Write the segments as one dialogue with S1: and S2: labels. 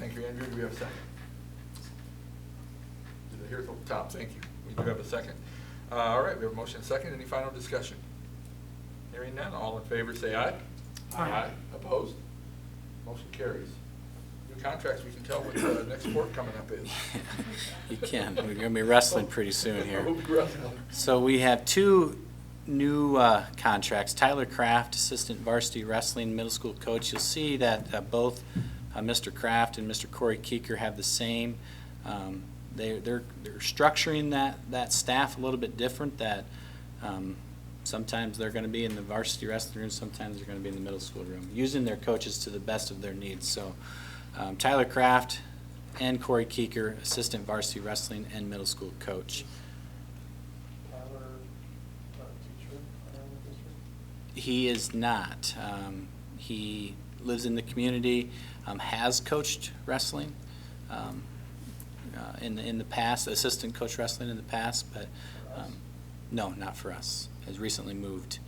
S1: you, Andrea, do we have a second? Did I hear it from the top? Thank you. We do have a second. Uh, All right, we have a motion and a second. Any final discussion? Hearing none, all in favor, say aye.
S2: Aye.
S1: Opposed? Motion carries. New contracts, we can tell what the next sport coming up is.
S3: You can. We're gonna be wrestling pretty soon here.
S1: We'll be wrestling.
S3: So we have two new uh, contracts. Tyler Kraft, Assistant Varsity Wrestling Middle School Coach. You'll see that uh, both uh, Mr. Kraft and Mr. Corey Keeker have the same. um, they- They're they're structuring that, that staff a little bit different, that um, sometimes they're going to be in the varsity wrestling room, sometimes they're going to be in the middle school room, using their coaches to the best of their needs. So um, Tyler Kraft and Corey Keeker, Assistant Varsity Wrestling and Middle School Coach.
S2: Tyler, uh, teacher, around the district?
S3: He is not. Um, he lives in the community, um, has coached wrestling um, uh, in the in the past, assistant coach wrestling in the past, but um, no, not for us. Has recently moved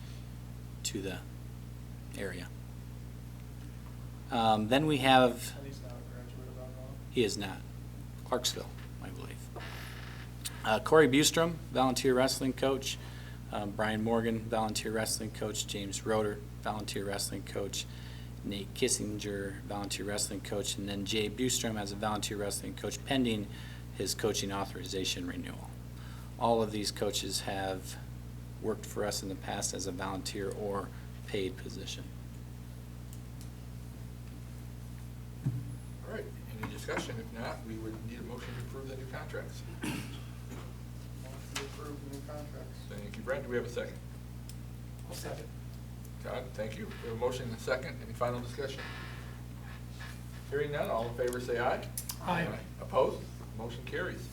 S3: to the area. Um, then we have.
S2: And he's not a graduate of Alcoa?
S3: He is not. Clarksville, I believe. Uh, Corey Bustrom, volunteer wrestling coach. Um, Brian Morgan, volunteer wrestling coach. James Roder, volunteer wrestling coach. Nate Kissinger, volunteer wrestling coach. And then Jay Bustrom as a volunteer wrestling coach pending his coaching authorization renewal. All of these coaches have worked for us in the past as a volunteer or paid position.
S1: All right, any discussion? If not, we would need a motion to approve the new contracts.
S2: Motion to approve the new contracts.
S1: Thank you, Brent. Do we have a second?
S2: I'll second.
S1: Todd, thank you. We have a motion and a second. Any final discussion? Hearing none, all in favor say aye.
S2: Aye.
S1: Opposed? Motion carries.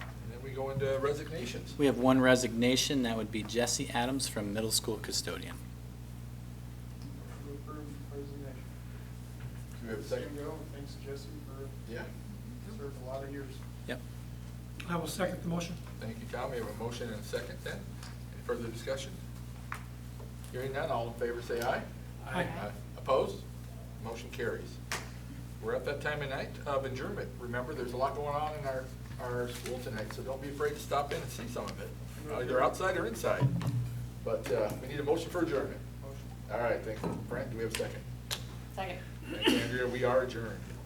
S1: And then we go into resignations.
S3: We have one resignation, that would be Jesse Adams from middle school custodian.
S2: Motion to approve the resignation.
S1: Do we have a
S2: Same
S1: second?
S2: go, thanks Jesse for,
S1: Yeah.
S2: served a lot of years.
S3: Yep.
S4: I will second the motion.
S1: Thank you, Tom. We have a motion and a second then. Any further discussion? Hearing none, all in favor say aye.
S4: Aye.
S1: Opposed? Motion carries. We're at that time of night of adjournment. Remember, there's a lot going on in our, our school tonight, so don't be afraid to stop in and see some of it, uh, either outside or inside. But uh, we need a motion for adjournment.
S2: Motion.
S1: All right, thank you. Brent, do we have a second?
S5: Second.
S1: Thank you, Andrea. We are adjourned.